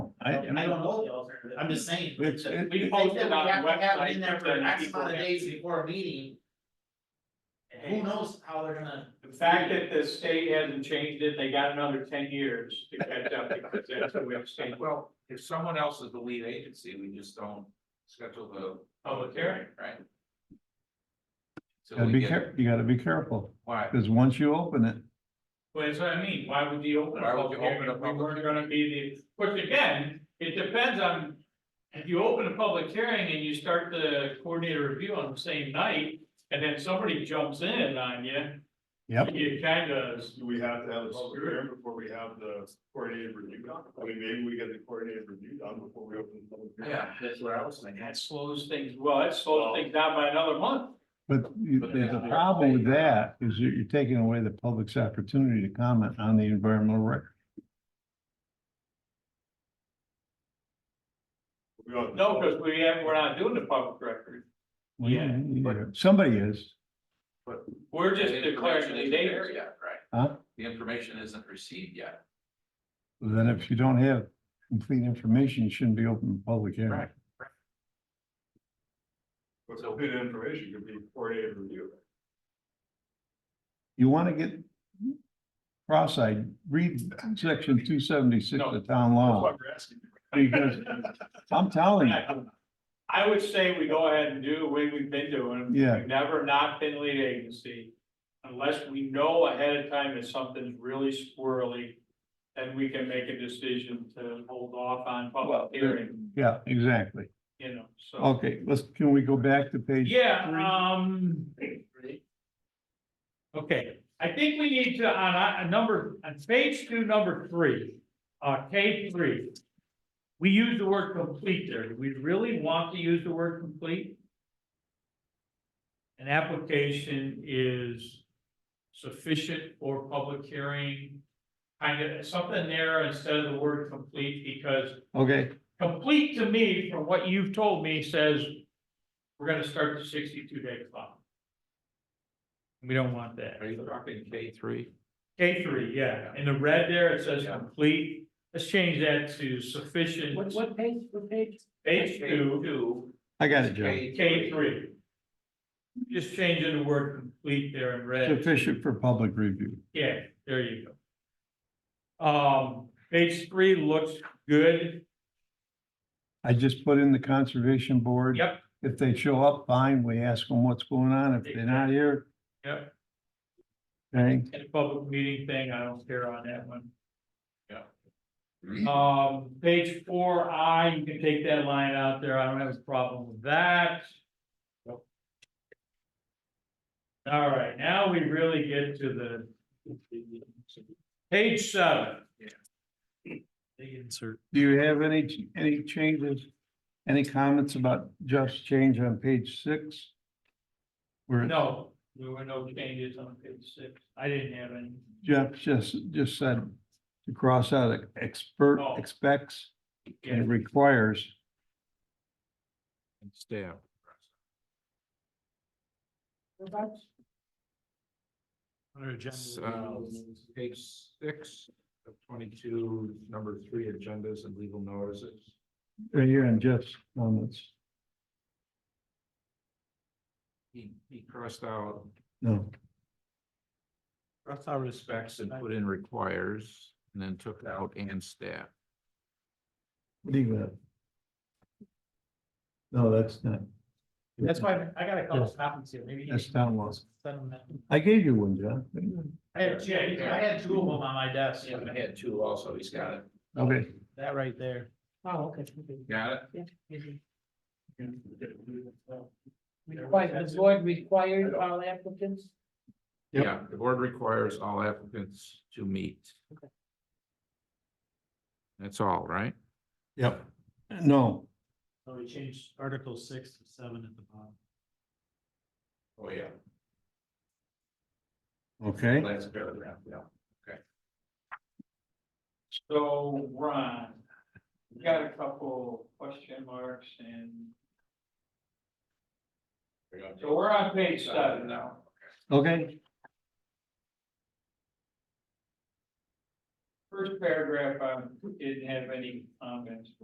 I, I I mean, don't know the alternative, I'm just saying. It's- it- We They post said it we on have the to have it website. in there so for that X people amount of can days see. before a meeting, who knows how they're gonna. The fact that the state hasn't changed it, they got another ten years to catch up because that's the way the state. Well, if someone else is the lead agency, we just don't schedule the. Public hearing. Right. So gotta be care, you gotta be careful, Why? because once you open it, Well, that's what I mean, why would you open Why a would public you open hearing a if we public weren't gonna be the, which again, it depends on. If you open a public hearing and you start the coordinator review on the same night, and then somebody jumps in on you. Yep. You kinda, Do we have to have a public hearing before we have the coordinated review done? I mean, maybe we get the coordinated review done before we open the public hearing. Yeah, that's what I was thinking. that slows things, well, that slows things down by another month. but you, But it there's has a to be problem with paid. that, is you're, you're taking away the public's opportunity to comment on the environmental record. We ought to- No, because we have, we're not doing the public record. Yeah, but- Somebody is, We're just The information declaring the isn't date. there yet, Right, huh? the information isn't received yet. Then if you don't have complete information, you shouldn't be open to public hearing. Right. But good information could be coordinated review. You wanna get cross-eyed, read section two seventy-six of town That's law, what we're asking. because I'm telling you, I would say we go ahead and do the way we've been doing. Yeah. We've never not been lead agency. Unless we know ahead of time that something's really squirrely, then we can make a decision to hold off on Well, public hearing, yeah, exactly. you know, so. Okay, let's, can we go back to page? Yeah, three? um. Okay, I think we need to, on, on number, on page two, number three, uh, K three. We use the word complete there. Do we really want to use the word complete? An application is sufficient for public hearing. Kind of something there instead of the word complete because Okay, complete to me, from what you've told me, says we're gonna start the sixty-two day clock. We don't want that. Are you talking K three? K three, yeah, in the red there, it says Yeah. complete, let's change that to sufficient. What, what page, what page? Page two, I got it, Joe. K three. Just changing the word complete there in red. Sufficient for public review. Yeah, there you go. Um, page three looks good, I just put in the conservation board. Yep. If they show up, fine, we ask them what's going on. If they're not here. Yep. Okay, and the public meeting thing, I don't care on that one. Mhm. Um, page four I, you can take that line out there, I don't have a problem with that. All right, now we really get to the. Page seven. do you have any, any changes? Any comments about just change on page six? Where No, there were no changes on page six, I didn't have any. Jeff just, just said to cross out expert, Oh. expects Yeah. and requires. Stamp. So, page six of twenty-two, number three, agendas and legal notices. Right here on Jeff's comments. He, he crossed out No, Crossed out respects and put in requires, and then took out and staff. leave that. No, that's not. That's why I got a couple Yes. copies here, maybe. you That's can town law. send them that. I gave you one, John. I had, yeah, I had two of them on my desk, I had two also, he's got it. Okay, that right there. Oh, okay. Got it? Required, the board required all applicants? Yep. Yeah, the board requires all applicants to meet. That's all, right? yep. No, So we changed article six to seven at the bottom. Oh, yeah. okay, Last paragraph, yeah. So, Ron, we got a couple question marks and, so we're on page seven now. okay. First paragraph, I didn't have any comments.